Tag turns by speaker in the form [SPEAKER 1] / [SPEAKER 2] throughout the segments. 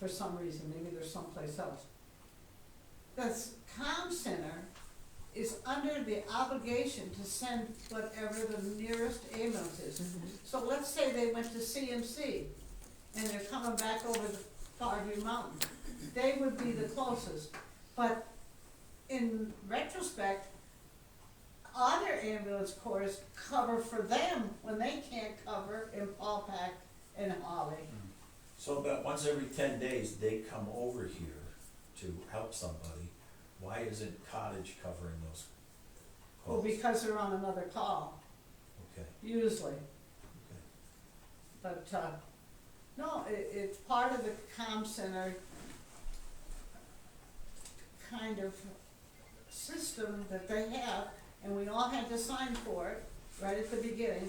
[SPEAKER 1] for some reason, maybe they're someplace else. The s- comm center is under the obligation to send whatever the nearest ambulance is. So let's say they went to CMC and they're coming back over the Farview Mountain. They would be the closest, but in retrospect, other ambulance corps cover for them when they can't cover in Paul Pack and Holly.
[SPEAKER 2] So about once every ten days, they come over here to help somebody, why isn't Cottage covering those
[SPEAKER 1] Well,
[SPEAKER 2] calls?
[SPEAKER 1] because they're on another call,
[SPEAKER 2] Okay,
[SPEAKER 1] usually,
[SPEAKER 2] okay.
[SPEAKER 1] but, uh, no, it, it's part of the comm center kind of system that they have, and we all had to sign for it, right at the beginning,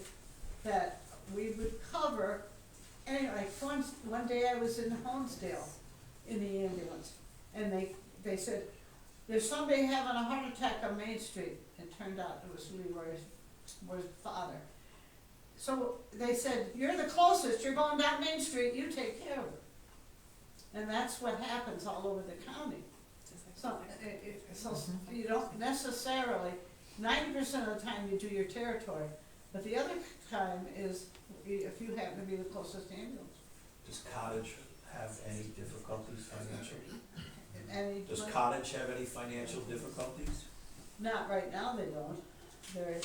[SPEAKER 1] that we would cover, anyway, once, one day I was in Honesdale in the ambulance, and they, they said, there's somebody having a heart attack on Main Street, it turned out it was Leroy's, was father. So they said, you're the closest, you're going down Main Street, you take care of it. And that's what happens all over the county. So, it, it, so you don't necessarily, ninety percent of the time you do your territory, but the other time is if you happen to be the closest ambulance.
[SPEAKER 2] Does Cottage have any difficulties financially?
[SPEAKER 1] And you-
[SPEAKER 2] Does Cottage have any financial difficulties?
[SPEAKER 1] Not right now, they don't. They're,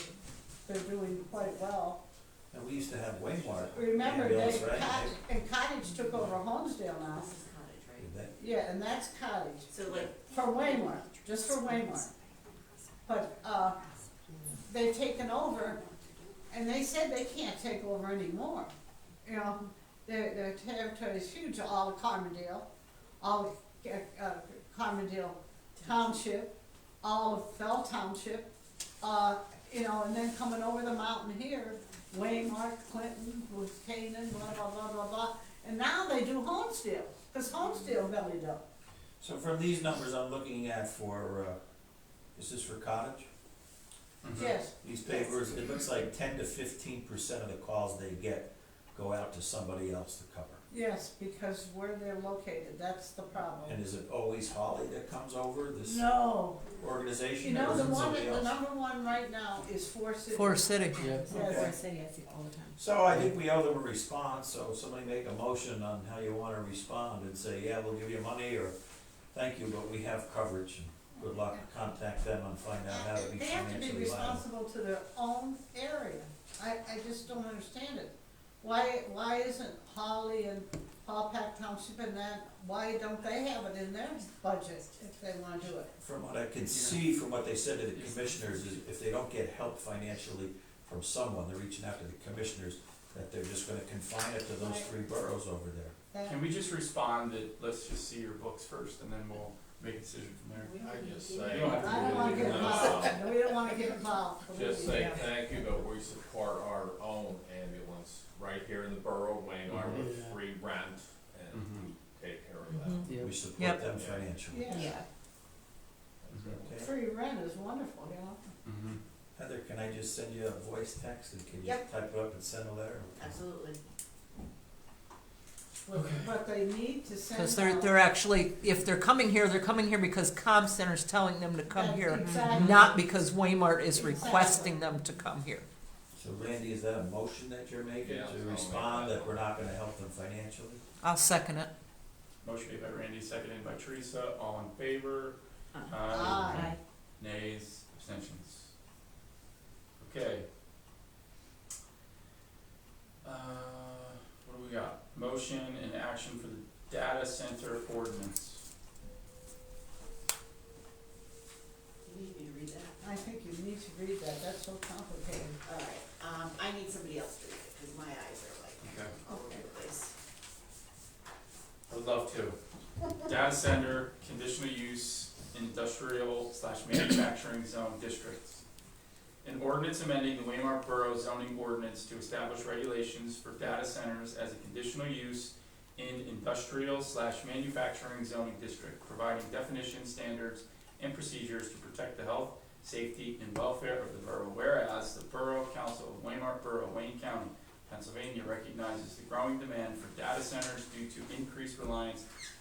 [SPEAKER 1] they're doing quite well.
[SPEAKER 2] And we used to have Waymark
[SPEAKER 1] Remember, they,
[SPEAKER 2] ambulance, right?
[SPEAKER 1] Cottage, and Cottage took over Holmesdale now.
[SPEAKER 3] This is cottage, right?
[SPEAKER 2] Did that-
[SPEAKER 1] Yeah, and that's Cottage.
[SPEAKER 3] So like.
[SPEAKER 1] For Waymore, just for Waymore. But, uh, they've taken over, and they said they can't take over anymore. You know, their, their territory is huge, all of Carmondale, all of, uh, Carmondale Township, all of Fell Township, uh, you know, and then coming over the mountain here, Waymark, Clinton, with Canaan, blah, blah, blah, blah, blah. And now they do Homestead, cause Homestead bellied up.
[SPEAKER 2] So from these numbers I'm looking at for, uh, is this for Cottage?
[SPEAKER 1] Yes,
[SPEAKER 2] These papers, it looks like ten to fifteen percent of the calls they get go out to somebody else to cover.
[SPEAKER 1] yes, because where they're located, that's the problem.
[SPEAKER 2] And is it always Holly that comes over, this
[SPEAKER 1] No, you
[SPEAKER 2] organization, or
[SPEAKER 1] know,
[SPEAKER 2] is
[SPEAKER 1] the
[SPEAKER 2] it
[SPEAKER 1] one,
[SPEAKER 2] somebody
[SPEAKER 1] the
[SPEAKER 2] else?
[SPEAKER 1] number one right now is Four Cities.
[SPEAKER 4] For acidic, yeah.
[SPEAKER 1] Yes.
[SPEAKER 3] Or city, I see all the time.
[SPEAKER 2] So I think we owe them a response, so somebody make a motion on how you wanna respond and say, yeah, we'll give you money, or thank you, but we have coverage, and good luck, contact them and find out how to be
[SPEAKER 1] They have to be
[SPEAKER 2] financially liable.
[SPEAKER 1] responsible to their own area. I, I just don't understand it. Why, why isn't Holly and Paul Pack Township and that, why don't they have it in their budget if they wanna do it?
[SPEAKER 2] From what I can see, from what they said to the commissioners, is if they don't get help financially from someone, they're reaching out to the commissioners, that they're just gonna confine it to those three boroughs over there.
[SPEAKER 1] That-
[SPEAKER 5] Can we just respond that, let's just see your books first and then we'll make a decision from there?
[SPEAKER 3] We don't
[SPEAKER 6] I
[SPEAKER 3] need
[SPEAKER 6] just
[SPEAKER 3] to do
[SPEAKER 6] say-
[SPEAKER 3] that.
[SPEAKER 5] You don't have to
[SPEAKER 1] I don't wanna get involved, we don't wanna get involved. believe
[SPEAKER 6] Just
[SPEAKER 1] me.
[SPEAKER 6] say thank you, but we support our own ambulance right here in the borough, Wayne, with
[SPEAKER 4] Mhm.
[SPEAKER 6] free rent and
[SPEAKER 5] Mhm.
[SPEAKER 6] take care of that.
[SPEAKER 4] Yeah.
[SPEAKER 2] We support
[SPEAKER 4] Yep.
[SPEAKER 2] them financially.
[SPEAKER 1] Yeah.
[SPEAKER 3] Yeah,
[SPEAKER 2] Okay.
[SPEAKER 1] Free rent is wonderful, you know?
[SPEAKER 5] Mhm.
[SPEAKER 2] Heather, can I just send you a voice text and can you
[SPEAKER 3] Yep.
[SPEAKER 2] type it up and send a letter?
[SPEAKER 3] absolutely.
[SPEAKER 1] But- But they need to send out.
[SPEAKER 4] Because they're, they're actually, if they're coming here, they're coming here because comm center's telling them to
[SPEAKER 1] That-
[SPEAKER 4] come here,
[SPEAKER 1] exactly.
[SPEAKER 4] not because Waymart is requesting them to come here.
[SPEAKER 2] So Randy, is that a motion that you're making
[SPEAKER 6] Yeah, I'll
[SPEAKER 2] to
[SPEAKER 6] make
[SPEAKER 2] respond
[SPEAKER 6] that.
[SPEAKER 2] that we're not gonna help them financially?
[SPEAKER 4] I'll second it.
[SPEAKER 5] Motion made by Randy, seconded by Teresa, all in favor,
[SPEAKER 3] Uh,
[SPEAKER 5] aye,
[SPEAKER 1] Aye.
[SPEAKER 3] Aye.
[SPEAKER 5] nays, abstentions. Okay. Uh, what do we got? Motion and action for the data center ordinance.
[SPEAKER 3] You need me to read that?
[SPEAKER 1] I think you need to read that, that's so complicated.
[SPEAKER 3] All right, um, I need somebody else to read it, cause my eyes are like
[SPEAKER 5] Okay.
[SPEAKER 3] all over the place.
[SPEAKER 5] I would love to. Data center, conditional use, industrial slash manufacturing zone districts. An ordinance amending the Waymar Borough zoning ordinance to establish regulations for data centers as a conditional use in industrial slash manufacturing zoning district, providing definitions, standards, and procedures to protect the health, safety, and welfare of the borough. Whereas the Borough Council of Waymar Borough, Wayne County, Pennsylvania recognizes the growing demand for data centers due to increased reliance